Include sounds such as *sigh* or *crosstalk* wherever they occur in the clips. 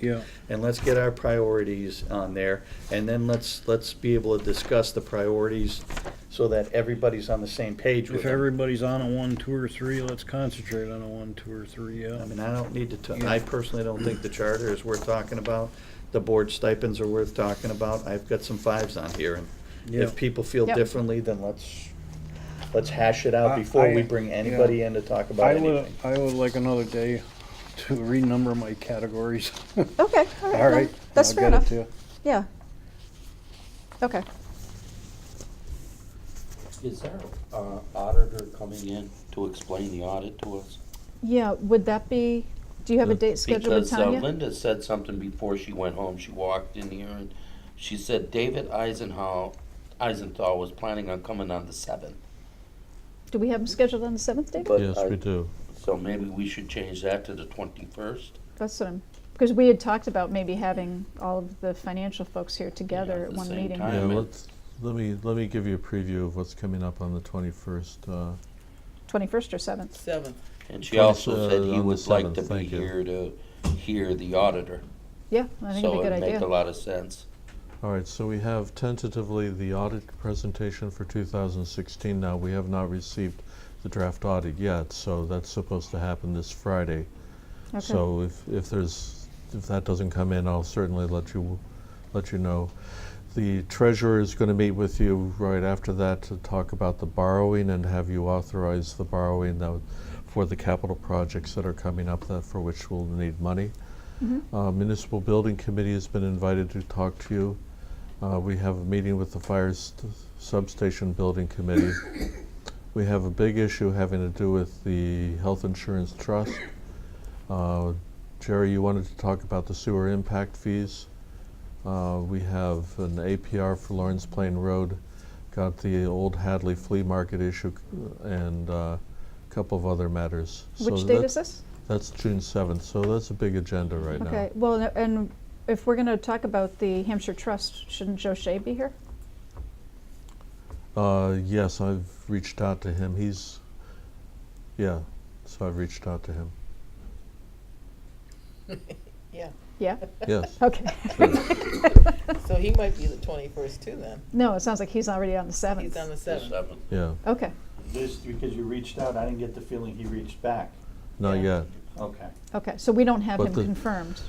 Yeah. And let's get our priorities on there, and then let's, let's be able to discuss the priorities so that everybody's on the same page with If uh, them. everybody's on a one, two, or three, let's concentrate on a one, two, or three, yeah. I mean, I don't need to, ta- I personally don't think the charter is worth talking about. The board stipends are worth talking about. I've got some fives on here, and Yeah. if people feel Yep. differently, then let's, let's hash it I- out before we I- bring yeah. anybody in to talk about I would, anything. I would like another day to renumber my categories. *laughs* Okay, all right. All right. no, That's I'll fair get it enough. to you. Yeah. Okay. Is there an auditor coming in to explain the audit to us? Yeah, would that be, do you have a date scheduled with Because uh, Tanya? Linda said something before she went home, she walked in here and she said David Eisenhow, Eisenthal was planning on coming on the seventh. Do we have them scheduled on the seventh date? But Yes, I- we do. So maybe we should change that to the twenty-first. That's what I'm, because we had talked about maybe having all of the financial folks here together at at the one same meeting. time. Yeah, mean- let's, let me, let me give you a preview of what's coming up on the twenty-first, uh, Twenty-first or seventh? Seventh. And she also Twenty- said uh, on he the would like 7th, to be thank you. here to hear the auditor. Yeah, I think it'd be a good So it'd make a idea. lot of sense. All right, so we have tentatively the audit presentation for 2016 now. We have not received the draft audit yet, so that's supposed to happen this Friday. Okay. So if, if there's, if that doesn't come in, I'll certainly let you, let you know. The treasurer is going to meet with you right after that to talk about the borrowing and have you authorize the borrowing that, for the capital projects that are coming up that, for which we'll need money. Uh, Municipal Building Committee has been invited to talk to you. Uh, we have a meeting with the Fire st- Substation Building Committee. We have a big issue having to do with the Health Insurance Trust. Uh, Jerry, you wanted to talk about the sewer impact fees. Uh, We have an APR for Lawrence Plain Road, got the old Hadley Flea Market issue, c- and a couple of other matters. So Which date that- is this? That's June seventh, so that's a big agenda right now. Okay, well, no- and if we're gonna talk about the Hampshire Trust, shouldn't Joe Shea be here? Uh, yes, I've reached out to him. He's, yeah, so I've reached out *laughs* to him. Yeah, Yeah? Yes. Okay. *laughs* so he might be the twenty-first too then. No, it sounds like he's already on the He's seventh. on the The seventh. 7th. Yeah, Okay, This, because you reached out, I didn't get the feeling he reached back. not Yeah. yet. Okay. okay, so we don't have But him the- confirmed.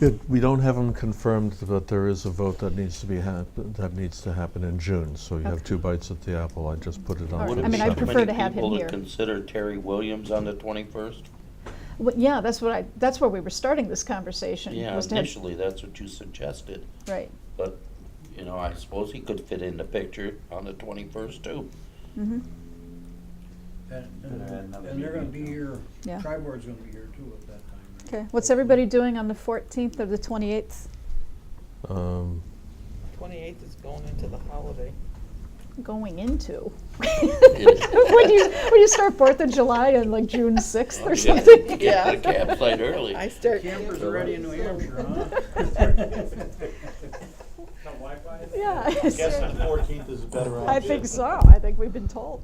It- we don't have him confirmed, but there is a vote that needs to be hap- that needs to happen in June. So you Okay. have two bites at the apple. I just put it on. All for right. Would the I mean, I'd it be too seventh. prefer to many have him people to here. consider Terry Williams on the twenty-first? Well, yeah, that's what I, that's where we were starting this conversation. Yeah, was to have- initially, that's what you suggested, Right. but, you know, I suppose he could fit in the picture on the twenty-first too. Mm-hmm. And, Better add and another and they're gonna meeting. be here, Yeah. tri-board's gonna be here too at that time, right? Okay. What's everybody doing on the 14th or the 28th? Um, Twenty-eighth is going into the holiday. Going *laughs* into. when you when you start 4th of July and like June 6th or You gotta something. Oh, Get to the Yeah. campsite early. I start. Campers are ready in New Hampshire, *laughs* *laughs* huh? Yeah. Guess the fourteenth is a better *laughs* *laughs* I option. think so. I think we've been told.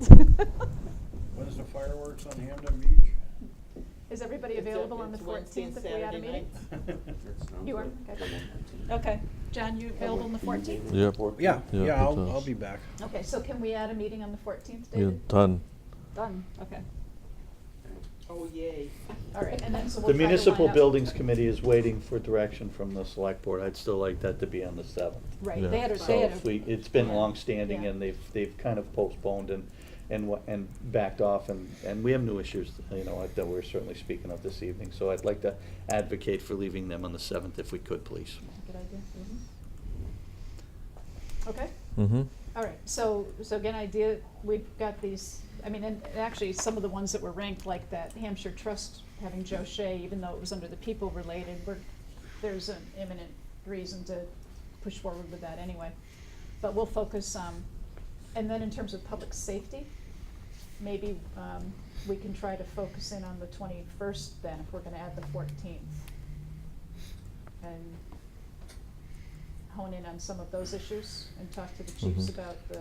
*laughs* When's the fireworks on Hamden Beach? *laughs* Is everybody available on the 14th if we had a meeting? You are? Okay. Okay. John, you available on the 14th? yep. Yeah, Yeah, yeah, it I'll, I'll does. be back. Okay, so can we add a meeting on the 14th, Yeah, David? done. Done. Okay. Oh, yay. All right, and then so we'll The try to line municipal up- buildings committee is waiting for direction from the select board. I'd still like that to be on the seventh. Right, Yeah. they had a, So they had a. if we, it's been longstanding Yeah. and they've, they've kind of postponed and, and, wa- and backed off and, and we have new issues, you know, like that we're certainly speaking of this evening. So I'd like to advocate for leaving them on the seventh if we could, please. Good idea. Okay, Mm-hmm. all right, so, so again, idea, we've got these, I mean, and and actually, some of the ones that were ranked, like that Hampshire Trust having Joe Shea, even though it was under the people related, we're, there's an imminent reason to push forward with that anyway. But we'll focus, um, and then in terms of public safety, maybe, um, we can try to focus in on the twenty-first then, if we're gonna add the fourteenth. And hone in on some of those issues and talk to the chiefs Mhm. about the,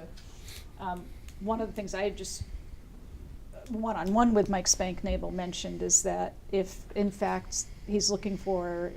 um, one of the things I had just, uh, one-on-one with Mike Spank Nabel mentioned is that if, in fact, he's looking for